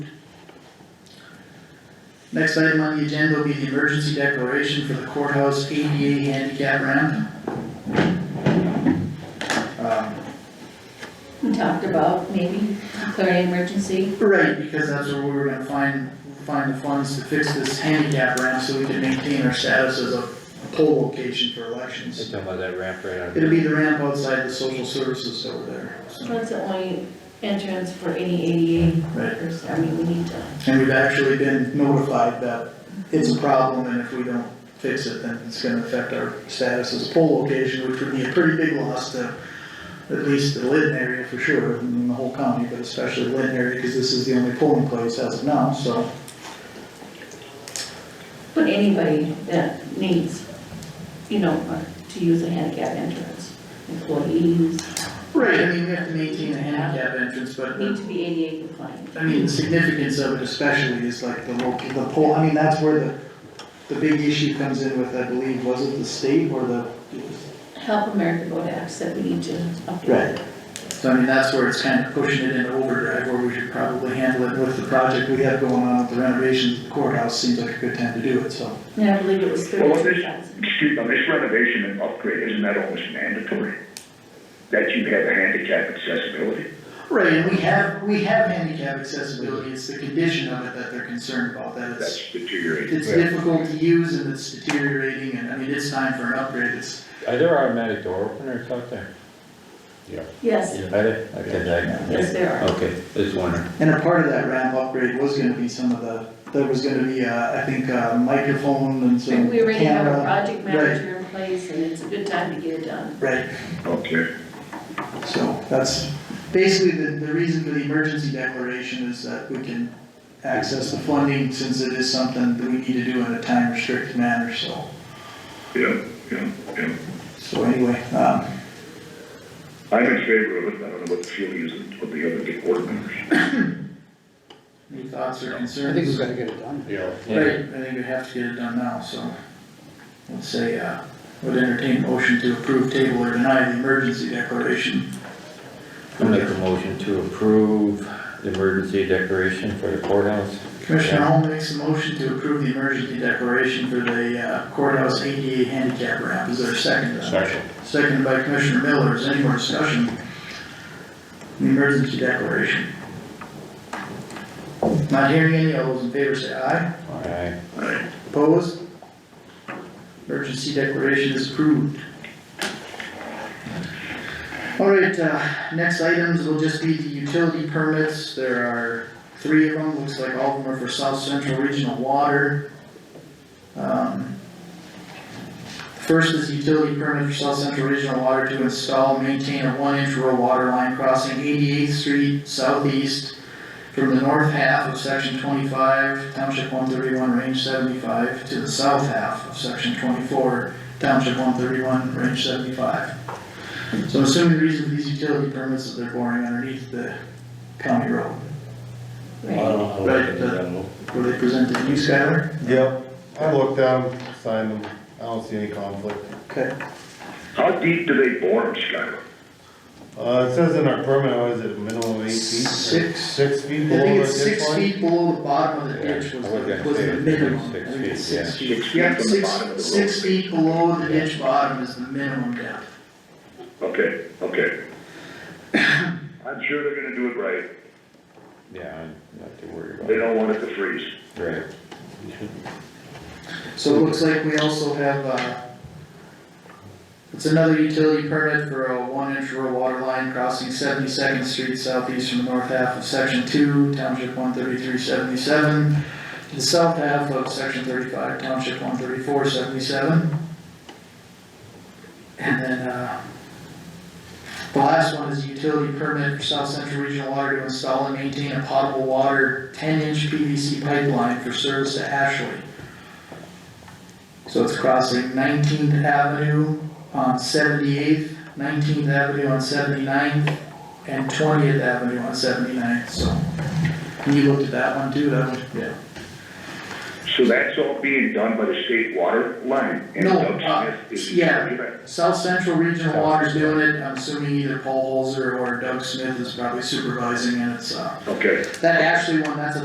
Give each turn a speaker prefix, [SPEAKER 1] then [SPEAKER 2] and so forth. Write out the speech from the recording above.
[SPEAKER 1] Next item on the agenda will be the emergency declaration for the courthouse ADA handicap ramp. Um,
[SPEAKER 2] We talked about maybe declaring emergency.
[SPEAKER 1] Right, because that's where we were gonna find, find the funds to fix this handicap ramp so we can maintain our status as a poll location for
[SPEAKER 3] They're
[SPEAKER 1] elections.
[SPEAKER 3] talking about that ramp right out.
[SPEAKER 1] It'll be the ramp outside the social services over there, so,
[SPEAKER 4] That's the only entrance for any ADA
[SPEAKER 1] right.
[SPEAKER 4] workers, I mean, we need to,
[SPEAKER 1] And we've actually been notified that it's a problem and if we don't fix it, then it's gonna affect our status as a poll location, which would be a pretty big loss to at least the Lynn area for sure, and then the whole county, but especially the Lynn area, because this is the only polling place as of now, so.
[SPEAKER 4] but anybody that needs, you know, uh, to use a handicap entrance, employees,
[SPEAKER 1] Right, I mean, we have to maintain a handicap entrance, but
[SPEAKER 4] need
[SPEAKER 1] the,
[SPEAKER 4] to be ADA compliant.
[SPEAKER 1] I mean, the significance of it especially is like the local, the poll, I mean, that's where the, the big issue comes in with, I believe, was it the state or the?
[SPEAKER 4] Help America Vote Act said we need to update it.
[SPEAKER 1] So I mean, that's where it's kind of pushing it into overdrive, where we should probably handle it with the project we have going on with the renovations of the courthouse, seems like a good time to do it, so.
[SPEAKER 4] And I believe it was
[SPEAKER 5] Well, what is-
[SPEAKER 4] thirty-two thousand.
[SPEAKER 5] Excuse me, this renovation and upgrade, isn't that almost mandatory? That you have a handicap accessibility?
[SPEAKER 1] Right, and we have, we have handicap accessibility, it's the condition of it that they're concerned about, that it's
[SPEAKER 5] That's deteriorating.
[SPEAKER 1] It's difficult to use and it's deteriorating and, I mean, it's time for an upgrade, it's,
[SPEAKER 3] Are there automatic door openers out there?
[SPEAKER 4] Yes,
[SPEAKER 3] Are there? Okay, that-
[SPEAKER 4] yes, there are.
[SPEAKER 3] Okay, just wondering.
[SPEAKER 1] and a part of that ramp upgrade was gonna be some of the, there was gonna be, uh, I think, uh, microphone and some
[SPEAKER 4] We already have a
[SPEAKER 1] camera.
[SPEAKER 4] project manager in place, and it's a good time to get it done.
[SPEAKER 1] Right,
[SPEAKER 5] Okay.
[SPEAKER 1] so that's basically the, the reason for the emergency declaration is that we can access the funding since it is something that we need to do in a time restricted manner, so.
[SPEAKER 5] Yeah, yeah, yeah.
[SPEAKER 1] So anyway, um,
[SPEAKER 5] I'm in favor of it, I don't know what the feeling is of the other big board members.
[SPEAKER 1] any thoughts or concerns?
[SPEAKER 6] I think we've gotta get it done.
[SPEAKER 3] Yeah.
[SPEAKER 1] Right, I think we have to get it done now, so. Let's say, uh, would entertain motion to approve table or deny the emergency declaration.
[SPEAKER 3] I'll make a motion to approve the emergency declaration for the courthouse.
[SPEAKER 1] Commissioner Hall makes a motion to approve the emergency declaration for the uh, courthouse ADA handicap ramp. Is there a second? to that?
[SPEAKER 3] Second.
[SPEAKER 1] Seconded by Commissioner Miller. Is there any more discussion? The Emergency declaration. Not hearing any. All those in favor say aye.
[SPEAKER 3] All right.
[SPEAKER 1] Opposed? Emergency declaration is approved. Alright, uh, next items will just be the utility permits, there are three of them, looks like all of them are for South Central Regional Water. Um, First is utility permit for South Central Regional Water to install, and maintain a one-inch rural water line crossing 88th Street southeast from the north half of section twenty-five, township one thirty-one, range seventy-five, to the south half of section twenty-four, township one thirty-one, range seventy-five. So I'm assuming the reason for these utility permits is they're boring underneath the county road,
[SPEAKER 4] Right.
[SPEAKER 1] Right, were they presented to you, Skylar?
[SPEAKER 7] Yep, I looked at them, signed them, I don't see any conflict.
[SPEAKER 1] Okay,
[SPEAKER 5] How deep do they bore them, Skylar?
[SPEAKER 7] Uh, it says in our permit, what is it, a minimum of eight feet?
[SPEAKER 1] Six.
[SPEAKER 7] Six
[SPEAKER 1] I
[SPEAKER 7] feet below
[SPEAKER 1] think
[SPEAKER 7] the
[SPEAKER 1] it's
[SPEAKER 7] ditch
[SPEAKER 1] six
[SPEAKER 7] line?
[SPEAKER 1] feet below the bottom of the
[SPEAKER 3] Yeah,
[SPEAKER 1] ditch was,
[SPEAKER 3] I was
[SPEAKER 1] the-
[SPEAKER 3] gonna
[SPEAKER 1] was
[SPEAKER 3] say
[SPEAKER 1] the
[SPEAKER 3] it's
[SPEAKER 1] minimum, I
[SPEAKER 3] six
[SPEAKER 1] think it's
[SPEAKER 3] feet,
[SPEAKER 1] six feet.
[SPEAKER 5] Six feet from the
[SPEAKER 1] Six-
[SPEAKER 5] bottom of the road?
[SPEAKER 1] Six feet below the ditch bottom is the minimum depth.
[SPEAKER 5] Okay, okay. I'm sure they're gonna do it right,
[SPEAKER 3] Yeah, I'm not too worried about
[SPEAKER 5] they
[SPEAKER 3] it.
[SPEAKER 5] don't want it to freeze.
[SPEAKER 3] Right.
[SPEAKER 1] So it looks like we also have, uh, it's another utility permit for a one-inch rural water line crossing Seventy-second Street southeast from the north half of section two, township one thirty-three seventy-seven, to the south half of section thirty-five, township one thirty-four seventy-seven. And then, uh, the last one is a utility permit for South Central Regional Water to install and maintain a potable water ten-inch PVC pipeline for service to Ashley. So it's crossing Nineteenth Avenue on Seventy-Eighth, Nineteenth Avenue on 79th, and Twentieth Avenue on 79th, so. And you looked at that one too, that one? Yeah.
[SPEAKER 5] So that's all being done by the state water line? and
[SPEAKER 1] No,
[SPEAKER 5] Doug
[SPEAKER 1] uh,
[SPEAKER 5] Smith is-
[SPEAKER 1] yeah. South Central Regional Water's doing it, I'm assuming either Paul Holzer or Doug Smith is probably supervising, and it's, uh,
[SPEAKER 5] Okay.
[SPEAKER 1] that Ashley one, that's a